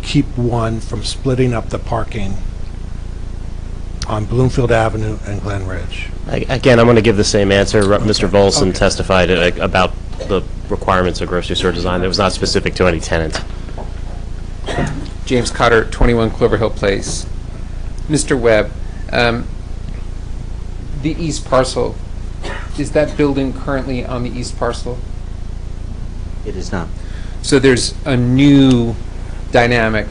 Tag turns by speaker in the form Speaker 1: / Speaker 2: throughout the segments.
Speaker 1: keep one from splitting up the parking on Bloomfield Avenue and Glen Ridge.
Speaker 2: A- Again, I'm going to give the same answer. Re- Mr. Volson
Speaker 1: okay.
Speaker 2: testified uh, about the requirements of grocery store design. That was not specific to any tenant.
Speaker 3: James Cotter, 21 Clover Hill Place. Mr. Webb, um, the east parcel, is that building currently on the east parcel?
Speaker 4: It is not.
Speaker 3: So there's a new dynamic,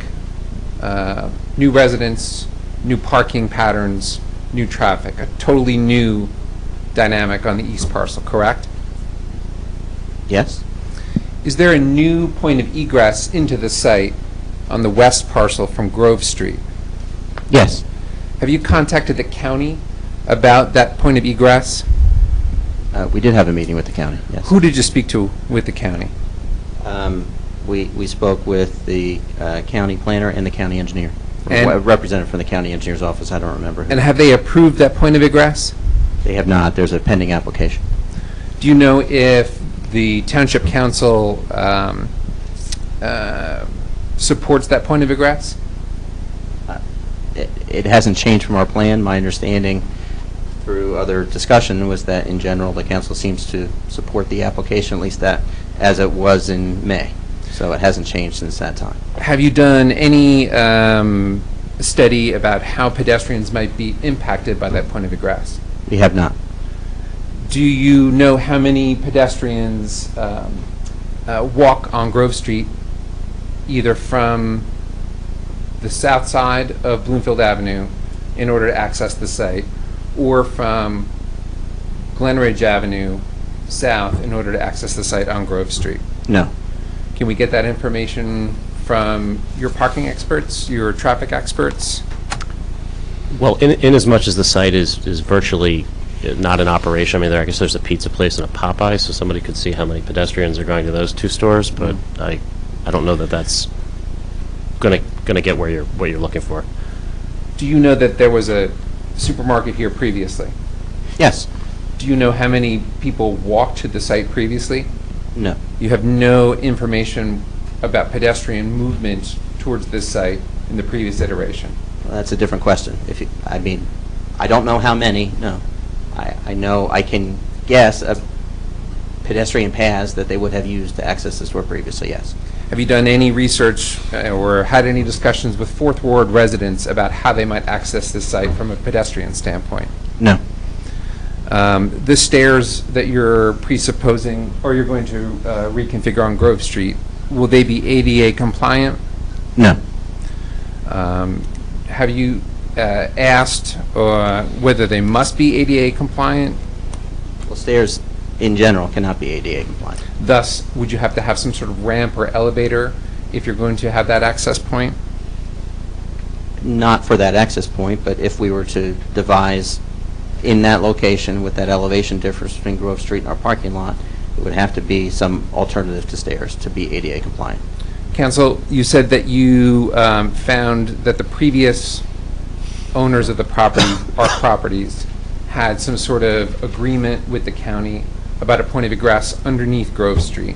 Speaker 3: uh, new residents, new parking patterns, new traffic, a totally new dynamic on the east parcel, correct?
Speaker 4: Yes?
Speaker 3: Is there a new point of egress into the site on the west parcel from Grove Street?
Speaker 4: Yes.
Speaker 3: Have you contacted the county about that point of egress?
Speaker 4: Uh, We did have a meeting with the county, yes.
Speaker 3: Who did you speak to with the county?
Speaker 4: Um, We we spoke with the uh, county planner and the county engineer.
Speaker 3: And-
Speaker 4: A Representative from the county engineer's office, I don't remember. who.
Speaker 3: And have they approved that point of egress?
Speaker 4: They have not, there's a pending application.
Speaker 3: Do you know if the township council um, uh, supports that point of egress?
Speaker 4: It it hasn't changed from our plan. My understanding through other discussion was that in general, the council seems to support the application, at least that, as it was in May. So it hasn't changed since that time.
Speaker 3: Have you done any um, study about how pedestrians might be impacted by that point of egress?
Speaker 4: We have not.
Speaker 3: Do you know how many pedestrians um, uh, walk on Grove Street, either from the south side of Bloomfield Avenue in order to access the site, or from Glenridge Avenue south in order to access the site on Grove Street?
Speaker 4: No.
Speaker 3: Can we get that information from your parking experts, your traffic experts?
Speaker 2: Well, in, in as much as the site is, is virtually uh, not in operation, I mean, there, I guess there's a pizza place and a Popeye, so somebody could see how many pedestrians are going to those two stores, but
Speaker 4: Mm-hmm.
Speaker 2: I, I don't know that that's going to, going to get where you're, what you're looking for.
Speaker 3: Do you know that there was a supermarket here previously?
Speaker 4: Yes.
Speaker 3: Do you know how many people walked to the site previously?
Speaker 4: No.
Speaker 3: You have no information about pedestrian movement towards this site in the previous iteration.
Speaker 4: Well, That's a different question. If, you- I mean, I don't know how many, no. I, I know, I can guess a pedestrian paths that they would have used to access the store previously, yes.
Speaker 3: Have you done any research uh, or had any discussions with Fourth Ward residents about how they might access this site from a pedestrian standpoint?
Speaker 4: No.
Speaker 3: Um, The stairs that you're presupposing, or you're going to uh, reconfigure on Grove Street, will they be ADA compliant?
Speaker 4: No.
Speaker 3: Um, Have you uh, asked uh, whether they must be ADA compliant?
Speaker 4: Well, stairs in general cannot be ADA compliant.
Speaker 3: Thus, would you have to have some sort of ramp or elevator if you're going to have that access point?
Speaker 4: Not for that access point, but if we were to devise in that location with that elevation difference between Grove Street and our parking lot, it would have to be some alternative to stairs to be ADA compliant.
Speaker 3: Council, you said that you um, found that the previous owners of the property, our properties, had some sort of agreement with the county about a point of egress underneath Grove Street.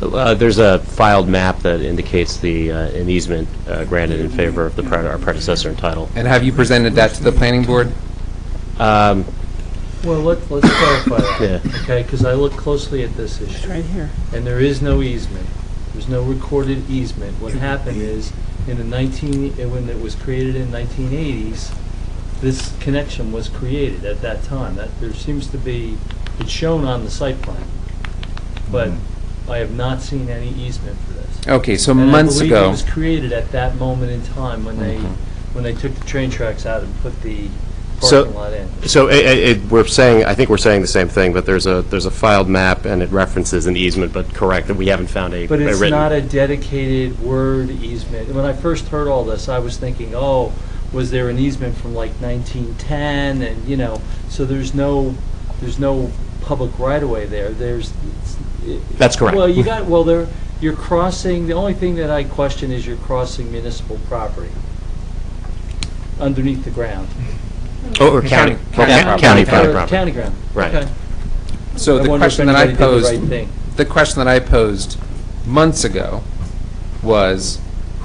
Speaker 2: Uh, There's a filed map that indicates the, uh, an easement uh, granted in favor of the, pre- our predecessor in title.
Speaker 3: And have you presented that to the planning board?
Speaker 2: Um,
Speaker 5: Well, let, let's clarify that,
Speaker 2: Yeah.
Speaker 5: okay, because I look closely at this issue. right here. And there is no easement. There's no recorded easement. What happened is, in the nineteen, eh, when it was created in nineteen eighties, this connection was created at that time. That, there seems to be, it's shown on the site plan, but I have not seen any easement for this.
Speaker 3: Mm-hmm. Okay, so
Speaker 5: And I
Speaker 3: months
Speaker 5: believe
Speaker 3: ago.
Speaker 5: it was created at that moment in time when they,
Speaker 3: Mhm.
Speaker 5: when they took the train tracks out and put the
Speaker 2: So-
Speaker 5: parking lot in.
Speaker 2: So i- i- it, we're saying, I think we're saying the same thing, but there's a, there's a filed map and it references an easement, but correct, that we haven't found a a
Speaker 5: But
Speaker 2: written.
Speaker 5: it's not a dedicated word easement. When I first heard all this, I was thinking, oh, was there an easement from like 1910? And, you know, so there's no, there's no public right-of-way there. There's. it's- it-
Speaker 2: That's correct.
Speaker 5: Well, you got, well, there, you're crossing, the only thing that I question is you're crossing municipal property underneath the ground.
Speaker 2: Oh, Or or county.
Speaker 3: County-
Speaker 2: or
Speaker 4: county
Speaker 2: private
Speaker 5: Or
Speaker 2: property.
Speaker 5: County ground.
Speaker 2: Right.
Speaker 5: Okay.
Speaker 3: So
Speaker 5: I
Speaker 3: the
Speaker 5: wonder if
Speaker 3: question that I
Speaker 5: anybody did the
Speaker 3: posed,
Speaker 5: right thing.
Speaker 3: the question that I posed months ago was,